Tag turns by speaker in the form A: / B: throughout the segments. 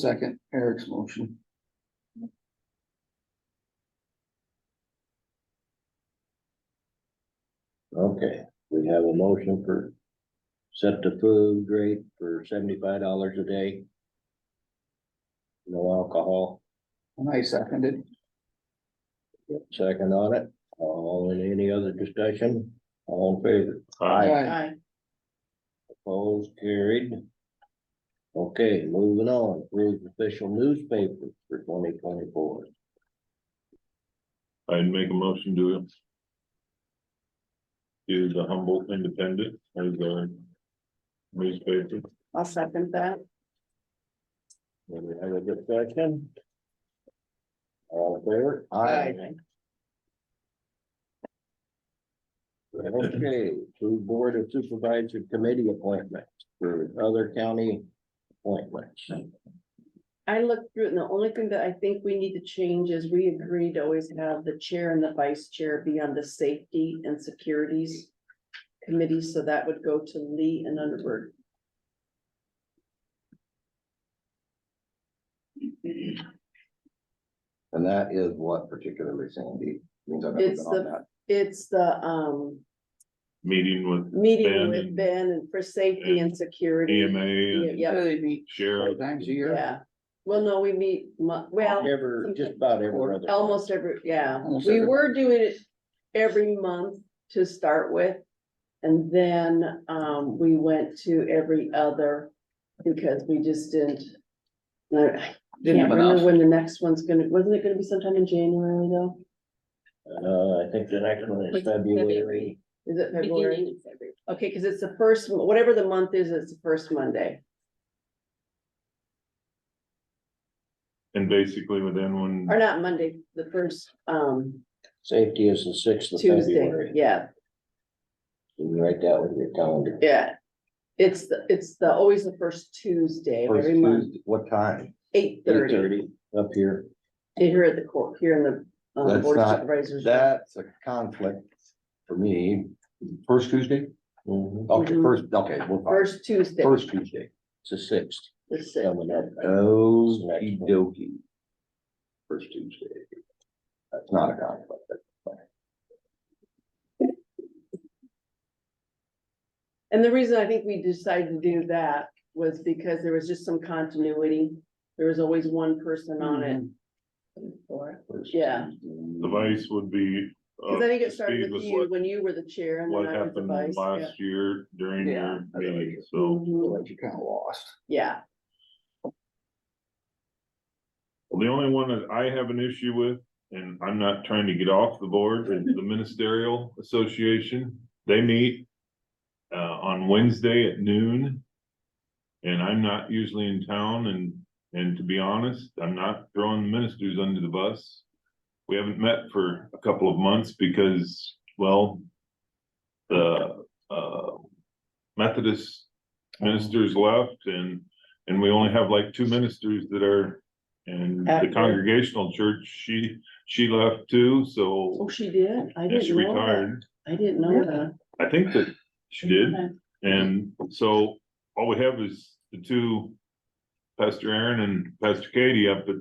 A: Second, Eric's motion.
B: Okay, we have a motion for set the food rate for seventy-five dollars a day. No alcohol,
A: And I seconded.
B: second on it, all in any other discussion, all in favor,
A: Aye.
B: opposed, carried. Okay, moving on, approved official newspaper for twenty twenty-four.
C: I'd make a motion to. Do the Humboldt Independent as a newspaper.
D: I'll second that.
B: When we have a discussion. All in favor?
D: Aye.
B: Okay, to Board of Supervisor Committee appointments for other county appointments.
D: I looked through it, and the only thing that I think we need to change is we agreed to always have the chair and the vice chair be on the safety and securities. Committee, so that would go to Lee and Underberg.
E: And that is what particularly Sandy means. I've never been
D: It's
E: on
D: the,
E: that.
D: it's the, um,
C: Meeting with
D: meeting
C: Ben
D: with
C: and-
D: Ben and for safety and security.
C: EMA and
D: Yeah,
A: They meet four
C: sheriff.
A: times a year.
D: yeah. Well, no, we meet, mu- well.
B: Ever, just about every other.
D: Almost every, yeah,
A: Almost
D: we
A: every
D: were doing it every month to start with. And then, um, we went to every other because we just didn't.
A: Didn't
D: I can't
A: have
D: remember
A: enough.
D: when the next one's gonna, wasn't it gonna be sometime in January though?
B: Uh, I think the next one is
F: Like
B: February.
F: February.
D: Is it February?
F: Beginning of February.
D: Okay, cause it's the first, whatever the month is, it's the first Monday.
C: And basically within one,
D: Or not Monday, the first, um,
B: Safety is the sixth of
D: Tuesday,
B: February.
D: yeah.
B: You can write that with your calendar.
D: Yeah, it's the, it's the, always the first Tuesday of
E: First
D: every month,
E: Tuesday, What time?
D: eight
B: Eight
D: thirty,
B: thirty up here.
D: here at the court, here in the. uh,
E: That's
D: Board of
E: not-
D: Supervisors.
E: That's a conflict for me. First Tuesday?
B: Mhm.
C: Mm-hmm.
E: Okay,
D: Mhm.
E: first, okay, we're fine.
D: First Tuesday,
E: First Tuesday.
B: It's the sixth
D: the sixth.
B: coming up.
E: Okey dokey. First Tuesday. That's not a conflict.
D: And the reason I think we decided to do that was because there was just some continuity. There was always one person on
E: Mm-hmm.
A: Mm-hmm.
D: it.
E: First
D: Yeah.
E: Tuesday.
C: the vice would be. uh,
D: Cause I think
C: to
D: it started
C: speed
D: with
C: with
D: you
C: what-
D: when you were the chair and
C: What
D: then I was the
C: happened
D: vice, yeah.
C: last year during
A: Yeah.
C: your meeting, so.
D: Mhm,
A: But you kind of lost.
D: Yeah,
C: Well, The only one that I have an issue with, and I'm not trying to get off the board, is the ministerial association. They meet uh, on Wednesday at noon. And I'm not usually in town and, and to be honest, I'm not throwing the ministers under the bus. We haven't met for a couple of months because, well, the uh, Methodist ministers left and, and we only have like two ministers that are and the
D: Active.
C: congregational church, she, she left too, so
D: oh, she did, I
C: and she
D: didn't know that,
C: retired.
D: I didn't know that.
C: I think that she did, and so all we have is the two, Pastor Aaron and Pastor Katie up, but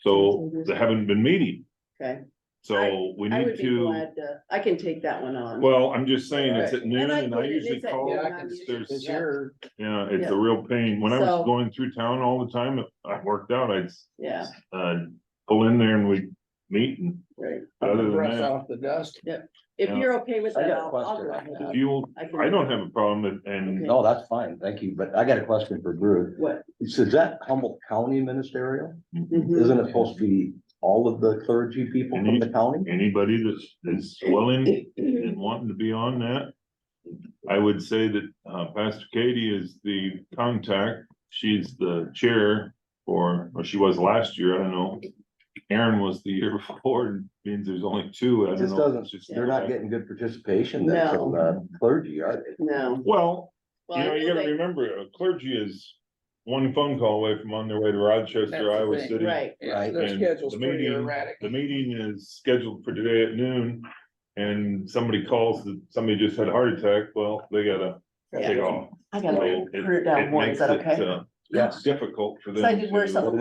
C: so they haven't been meeting.
D: Okay.
C: So we
D: I
C: need
D: would be
C: to,
D: glad to, I can take that one on.
C: well, I'm just saying, it's at noon
D: And I
C: and
D: put
C: I
D: it-
C: usually
D: it's at
C: call.
D: noon,
A: I can-
D: usually-
C: there's-
D: yeah.
B: Sure.
C: Yeah, it's
D: Yeah.
C: a real pain. When I was
D: So-
C: going through town all the time, I worked out, I'd
D: Yeah,
C: uh pull in there and we'd meet and
D: right.
C: other than
A: Brush
C: that.
A: off the dust.
D: If
C: Yeah.
D: you're okay with
E: I
D: that,
E: got a
D: I'll, I'll go
E: question.
D: ahead.
C: You'll,
D: can-
C: I don't have a problem and- and
D: Okay.
E: No, that's fine. Thank you. But I got a question for Drew.
D: What?
E: So Is that Humboldt County ministerial?
D: Mhm.
E: Isn't it supposed to be all of the clergy people from the county?
C: anybody that's, that's willing and wanting to be on that. I would say that, uh, Pastor Katie is the contact, she's the chair for, or she was last year, I don't know. Aaron was the year before, and means there's only two,
E: It
C: I don't
E: just
C: know.
E: doesn't,
C: It's just-
E: they're not getting good participation then from the clergy, are they?
D: No.
C: Well,
D: Well,
C: you
D: I
C: know, you
D: know
C: gotta
D: they-
C: remember, uh, clergy is one phone call away from on their way to
A: That's
C: Rochester,
A: the
C: Iowa
A: thing,
C: City.
D: Right,
A: Yeah,
E: Right.
A: their
C: And
A: schedule's
C: the
A: pretty
C: meeting-
A: erratic.
C: The meeting is scheduled for today at noon, and somebody calls, that somebody just had a heart attack, well, they gotta
D: Yeah.
C: take off.
D: I gotta
C: It-
D: put it down
C: it
D: more, is
C: makes
D: that
C: it,
D: okay?
C: uh,
E: Yes.
C: Difficult for them
D: So I did wear
C: to-
D: something